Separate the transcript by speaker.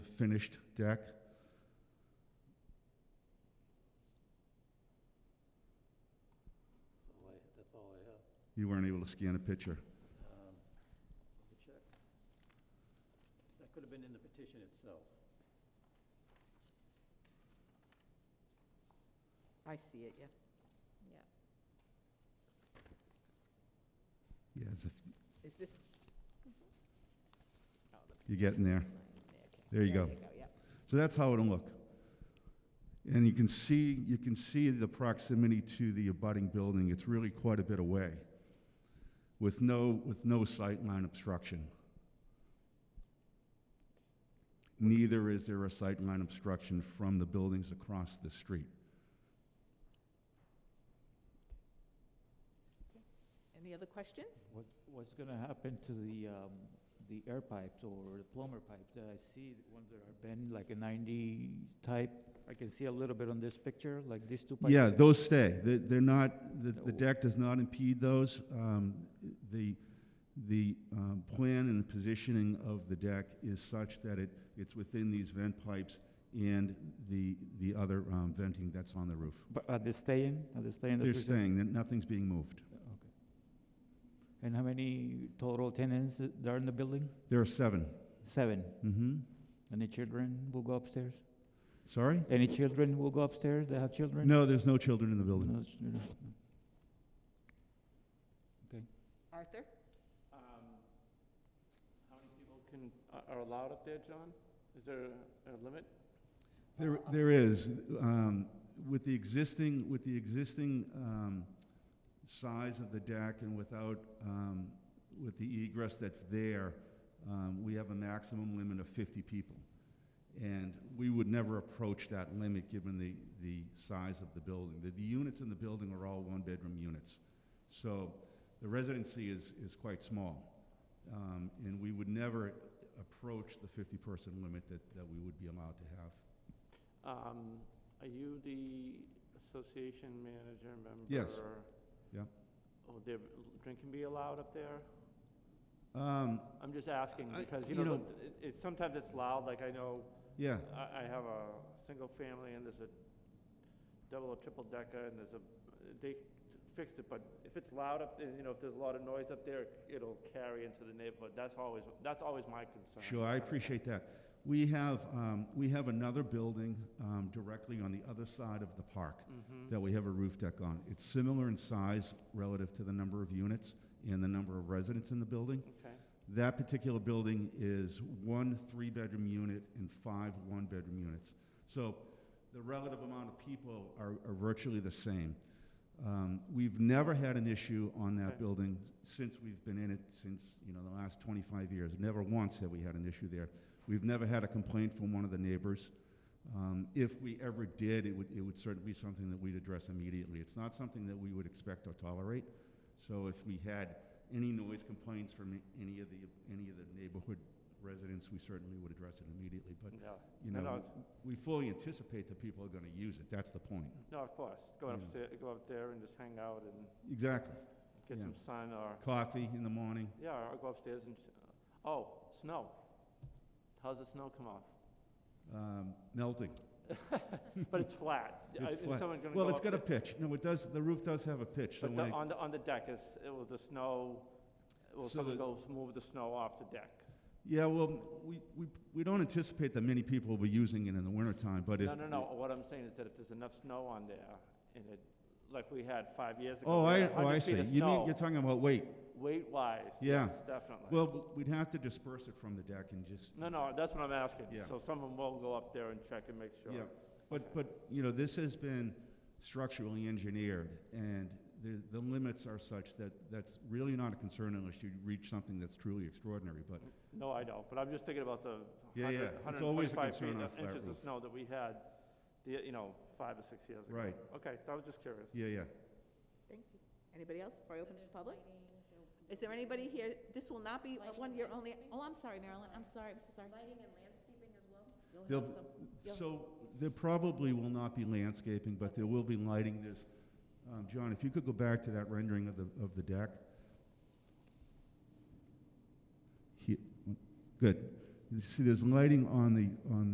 Speaker 1: finished deck.
Speaker 2: That's all I, that's all I have.
Speaker 1: You weren't able to scan a picture.
Speaker 2: Um, Let me check. That could have been in the petition itself.
Speaker 3: I see it, yeah.
Speaker 4: Yeah.
Speaker 1: Yes, if
Speaker 3: Is this? Oh, the
Speaker 1: you're getting there.
Speaker 3: picture's not in okay.
Speaker 1: There you go.
Speaker 3: yeah.
Speaker 1: So that's how it'll look. And you can see, you can see the proximity to the abutting building. It's really quite a bit away with no, with no sightline obstruction. Neither is there a sightline obstruction from the buildings across the street.
Speaker 3: Any other questions?
Speaker 5: What, what's gonna happen to the, um, the air pipes or the plumber pipes? Uh, I see the ones that are bent like a ninety type. I can see a little bit on this picture, like these two pipes.
Speaker 1: Yeah, those stay. They're, they're not, the, the
Speaker 5: No.
Speaker 1: deck does not impede those. Um, the, the, um, plan and the positioning of the deck is such that it, it's within these vent pipes and the, the other, um, venting that's on the roof.
Speaker 5: But are they staying? Are they staying? in the
Speaker 1: They're
Speaker 5: future?
Speaker 1: staying, Then nothing's being moved.
Speaker 5: And how many total tenants th- there are in the building?
Speaker 1: There are seven.
Speaker 5: Seven.
Speaker 1: Mm-hmm.
Speaker 5: Any children will go upstairs?
Speaker 1: Sorry?
Speaker 5: Any children will go upstairs? They have children?
Speaker 1: No, there's no children in the building.
Speaker 5: No children.
Speaker 3: Arthur?
Speaker 2: How Um, many people can, uh, are allowed up there, John? Is there a limit?
Speaker 1: There, there is, um, with the existing, with the existing, um, size of the deck and without, um, with the egress that's there, um, we have a maximum limit of fifty people. And we would never approach that limit given the, the size of the building. The, the units in the building are all one-bedroom units. So the residency is, is quite small. Um, and we would never approach the fifty-person limit that, that we would be allowed to have.
Speaker 2: Um, Are you the association manager member?
Speaker 1: Yes. Yeah.
Speaker 2: Will there drinking be allowed up there?
Speaker 1: Um,
Speaker 2: I'm just asking
Speaker 1: I-
Speaker 2: because, you
Speaker 1: you
Speaker 2: know,
Speaker 1: know-
Speaker 2: the- it, it's- sometimes it's loud, like I know
Speaker 1: yeah,
Speaker 2: I, I have a single family and there's a double or triple decker and there's a, they fixed it, but if it's loud up, there, you know, if there's a lot of noise up there, it'll carry into the neighborhood. That's always, that's always my concern.
Speaker 1: sure, I appreciate that. We have, um, we have another building, um, directly on the other side of the park
Speaker 2: Mhm.
Speaker 1: that we have a roof deck on. It's similar in size relative to the number of units and the number of residents in the building.
Speaker 2: Okay,
Speaker 1: That particular building is one three-bedroom unit and five one-bedroom units. So the relative amount of people are, are virtually the same. Um, we've never had an issue on that
Speaker 2: Okay.
Speaker 1: building since we've been in it since you know the last 25 years. Never once have we had an issue there. We've never had a complaint from one of the neighbors. Um, if we ever did, it would, it would certainly be something that we'd address immediately. It's not something that we would expect or tolerate. So if we had any noise complaints from any of the, any of the neighborhood residents, we certainly would address it immediately. But,
Speaker 2: yeah.
Speaker 1: you
Speaker 2: No, no,
Speaker 1: know,
Speaker 2: it's-
Speaker 1: we fully anticipate that people are going to use it. That's the point.
Speaker 2: No, of course, go
Speaker 1: Yeah.
Speaker 2: upstairs, go up there and just hang out and
Speaker 1: Exactly.
Speaker 2: get
Speaker 1: Yeah.
Speaker 2: some sun or,
Speaker 1: Coffee in the morning.
Speaker 2: yeah, or go upstairs and, s- oh, snow. How's the snow come off?
Speaker 1: Um, melting.
Speaker 2: But it's flat.
Speaker 1: It's
Speaker 2: Uh, is
Speaker 1: flat.
Speaker 2: someone gonna
Speaker 1: Well,
Speaker 2: go
Speaker 1: it's
Speaker 2: up
Speaker 1: got a
Speaker 2: there?
Speaker 1: pitch. No, it does, the roof does have a pitch. So
Speaker 2: But the,
Speaker 1: when it-
Speaker 2: on the, on the deck is, it will the snow, will
Speaker 1: So
Speaker 2: someone
Speaker 1: the-
Speaker 2: go move the snow off the deck?
Speaker 1: Yeah, well, we, we, we don't anticipate that many people will be using it in the wintertime, but if.
Speaker 2: No, no, no, what I'm saying is that if there's enough snow on there, and it, like we had five years ago.
Speaker 1: Oh,
Speaker 2: we
Speaker 1: I,
Speaker 2: had
Speaker 1: oh, I
Speaker 2: 100
Speaker 1: see.
Speaker 2: feet
Speaker 1: You
Speaker 2: of
Speaker 1: mean, you're
Speaker 2: snow,
Speaker 1: talking about weight.
Speaker 2: Weight-wise,
Speaker 1: Yeah.
Speaker 2: yes, definitely.
Speaker 1: Well, we'd have to disperse it from the deck and just,
Speaker 2: No, no, that's what I'm asking.
Speaker 1: Yeah.
Speaker 2: So someone will go up there and check and make sure.
Speaker 1: yeah. But, but, you know, this has been structurally engineered, and the, the limits are such that that's really not a concern unless you reach something that's truly extraordinary, but,
Speaker 2: No, I don't, but I'm just thinking about the
Speaker 1: Yeah, yeah.
Speaker 2: hundred,
Speaker 1: It's
Speaker 2: hundred and
Speaker 1: always a
Speaker 2: twenty-five feet,
Speaker 1: concern on a
Speaker 2: of
Speaker 1: flat
Speaker 2: inches of
Speaker 1: roof.
Speaker 2: snow that we had, the, you know, five or six years ago.
Speaker 1: right,
Speaker 2: Okay, I was just curious.
Speaker 1: yeah, yeah.
Speaker 3: Thank you. Anybody else before I open to the public? Is there anybody here, this will not be a
Speaker 4: Lighting
Speaker 3: one-year
Speaker 4: and
Speaker 3: only,
Speaker 4: landscaping?
Speaker 3: oh, I'm sorry, Marilyn, I'm sorry, I'm so sorry.
Speaker 4: Lighting and landscaping as well?
Speaker 1: They'll-
Speaker 3: have You'll-
Speaker 1: So there probably will not be landscaping, but there will be lighting. There's, um, John, if you could go back to that rendering of the, of the deck. He- Good. You see, there's lighting on the, on